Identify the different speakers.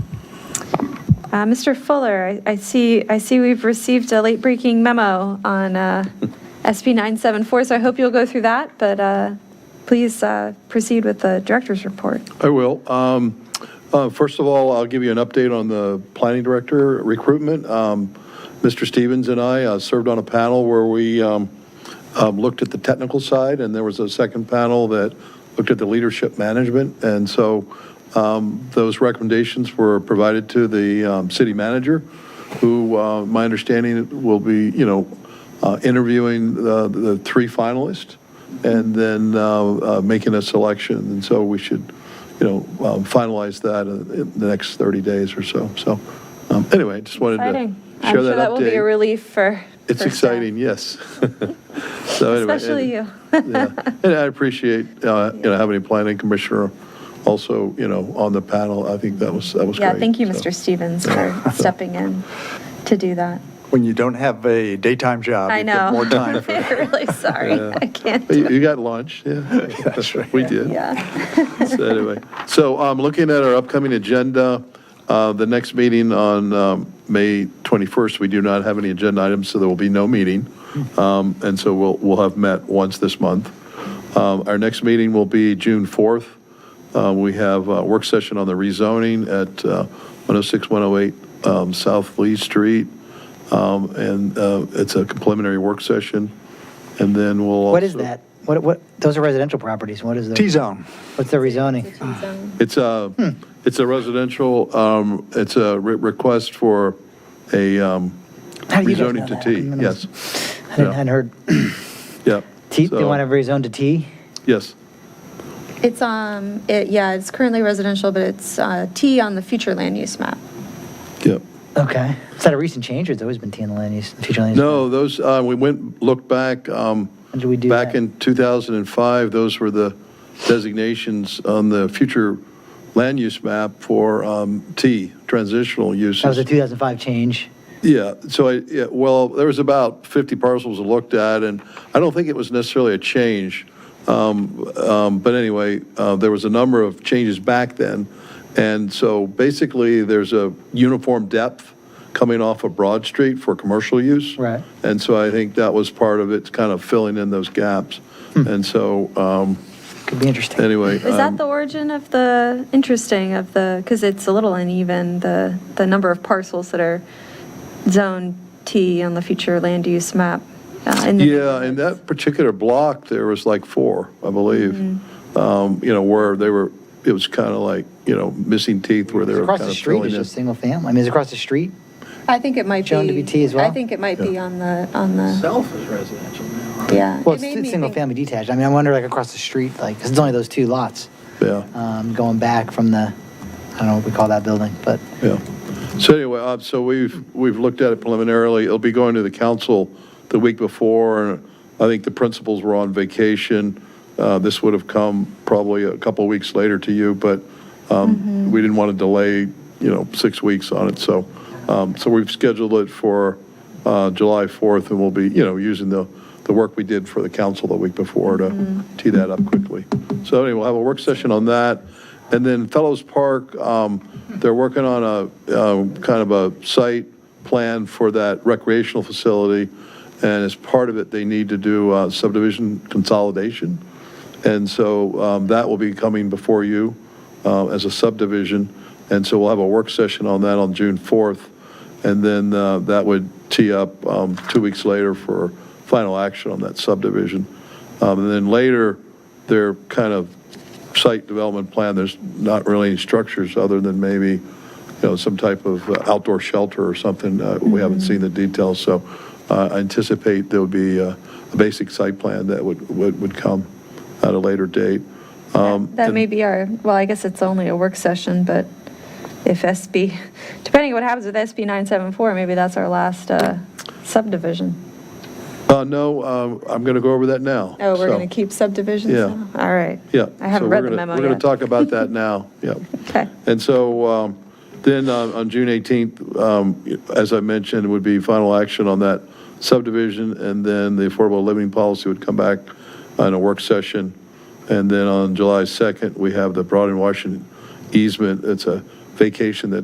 Speaker 1: Uh, Mr. Fuller, I I see, I see we've received a late-breaking memo on uh, SB 974, so I hope you'll go through that, but uh, please uh, proceed with the director's report.
Speaker 2: I will. Um, uh, First of all, I'll give you an update on the planning director recruitment. Um, Mr. Stevens and I uh, served on a panel where we um, um, looked at the technical side, and there was a second panel that looked at the leadership management. And so um, those recommendations were provided to the um, city manager, who, uh, my understanding, will be, you know, uh, interviewing the the three finalists and then uh, uh, making a selection. And so we should, you know, um, finalize that in the next 30 days or so. So um, anyway, just wanted to
Speaker 1: Exciting. I'm
Speaker 2: share
Speaker 1: sure
Speaker 2: that
Speaker 1: that will be a
Speaker 2: update.
Speaker 1: relief for.
Speaker 2: It's
Speaker 1: for staff.
Speaker 2: exciting, yes. So anyway,
Speaker 1: Especially uh,
Speaker 2: and-
Speaker 1: you.
Speaker 2: yeah. And I appreciate, uh, you know, having a planning commissioner also, you know, on the panel. I think that was, that was great.
Speaker 1: Yeah, thank you,
Speaker 2: So-
Speaker 1: Mr. Stevens, for stepping in to do that.
Speaker 3: When you don't have a daytime job,
Speaker 1: I
Speaker 3: you get
Speaker 1: know.
Speaker 3: more time for.
Speaker 1: Really sorry,
Speaker 2: Yeah.
Speaker 1: I can't.
Speaker 2: But You you got lunch, yeah.
Speaker 3: That's right.
Speaker 2: We did.
Speaker 1: Yeah.
Speaker 2: So anyway, so um, looking at our upcoming agenda, uh, the next meeting on um, May 21st, we do not have any agenda items, so there will be no meeting. Um, And so we'll, we'll have met once this month. Um, Our next meeting will be June 4th. Uh, We have a work session on the rezoning at uh, 106, 108 um, South Lee Street. Um, And uh, it's a preliminary work session. And then we'll also.
Speaker 4: What is that? What, what, those are residential properties. What is the?
Speaker 3: T-zone.
Speaker 4: What's the rezoning?
Speaker 1: um,
Speaker 2: It's a, it's a residential, um, it's a re- request for a um,
Speaker 4: How do you guys know
Speaker 2: rezoning to
Speaker 4: that?
Speaker 2: T,
Speaker 4: I'm gonna-
Speaker 2: yes,
Speaker 4: I hadn't
Speaker 2: yeah.
Speaker 4: hadn't heard.
Speaker 2: yeah.
Speaker 4: T, they
Speaker 2: So,
Speaker 4: want to rezone to T?
Speaker 2: Yes,
Speaker 1: It's, um, it, yeah, it's currently residential, but it's, uh, T on the future land use map.
Speaker 2: yeah.
Speaker 4: Okay. Is that a recent change or it's always been T in the land use, future land use?
Speaker 2: No, those, uh, we went, looked back, um,
Speaker 4: When did we do
Speaker 2: back
Speaker 4: that?
Speaker 2: in 2005, those were the designations on the future land use map for um, T, transitional uses.
Speaker 4: That was a 2005 change.
Speaker 2: Yeah, so I, yeah, well, there was about 50 parcels I looked at, and I don't think it was necessarily a change. Um, um, But anyway, uh, there was a number of changes back then. And so basically, there's a uniform depth coming off of Broad Street for commercial use.
Speaker 4: Right.
Speaker 2: And so I think that was part of it, kind of filling in those gaps. And so, um,
Speaker 4: Could be interesting.
Speaker 2: anyway.
Speaker 1: Is that
Speaker 2: um,
Speaker 1: the origin of the, interesting of the, because it's a little uneven, the, the number of parcels that are zone T on the future land use map? uh, in the
Speaker 2: Yeah, in that particular block, there was like four, I believe.
Speaker 4: Mm-hmm.
Speaker 2: Um, You know, where they were, it was kind of like, you know, missing teeth where they were
Speaker 4: Across
Speaker 2: kind
Speaker 4: the
Speaker 2: of
Speaker 4: street
Speaker 2: filling
Speaker 4: is
Speaker 2: in.
Speaker 4: just single family. I mean, is it across the street?
Speaker 1: I think it might be.
Speaker 4: Shown to be T as well?
Speaker 1: I think it might be on the, on the,
Speaker 5: Self is residential now.
Speaker 1: yeah.
Speaker 4: Well,
Speaker 1: It
Speaker 4: it's
Speaker 1: made
Speaker 4: it's
Speaker 1: me
Speaker 4: single
Speaker 1: think-
Speaker 4: family detached. I mean, I wonder like across the street, like, 'cause it's only those two lots,
Speaker 2: Yeah,
Speaker 4: um, going back from the, I don't know what we call that building, but
Speaker 2: yeah. So anyway, uh, so we've, we've looked at it preliminarily. It'll be going to the council the week before. and I think the principals were on vacation. Uh, This would have come probably a couple of weeks later to you, but
Speaker 4: Mm-hmm.
Speaker 2: um, we didn't want to delay, you know, six weeks on it. So, um, so we've scheduled it for uh, July 4th, and we'll be, you know, using the, the work we did for the council the week before to tee that up quickly. So anyway, we'll have a work session on that. And then Fellows Park, um, they're working on a, um, kind of a site plan for that recreational facility. And as part of it, they need to do uh, subdivision consolidation. And so um, that will be coming before you uh, as a subdivision. And so we'll have a work session on that on June 4th. And then uh, that would tee up um, two weeks later for final action on that subdivision. Um, And then later, their kind of site development plan, there's not really any structures other than maybe, you know, some type of uh, outdoor shelter or something. Uh, We
Speaker 1: Mm-hmm.
Speaker 2: haven't seen the details, so uh, I anticipate there would be uh, a basic site plan that would, would would come at a later date. Um,
Speaker 1: That may be our, well, I guess it's only a work session, but if SB, depending on what happens with SB 974, maybe that's our last uh, subdivision.
Speaker 2: Uh, no, uh, I'm going to go over that now.
Speaker 1: Oh, we're
Speaker 2: so,
Speaker 1: going to keep subdivisions
Speaker 2: Yeah.
Speaker 1: now? All right.
Speaker 2: Yeah.
Speaker 1: I
Speaker 2: so
Speaker 1: haven't
Speaker 2: we're
Speaker 1: read the
Speaker 2: gonna-
Speaker 1: memo
Speaker 2: We're going
Speaker 1: yet.
Speaker 2: to talk about that now, yeah.
Speaker 1: Okay.
Speaker 2: And so um, then uh, on June 18th, um, as I mentioned, would be final action on that subdivision, and then the affordable living policy would come back on a work session. And then on July 2nd, we have the Broad and Washington easement. It's a vacation that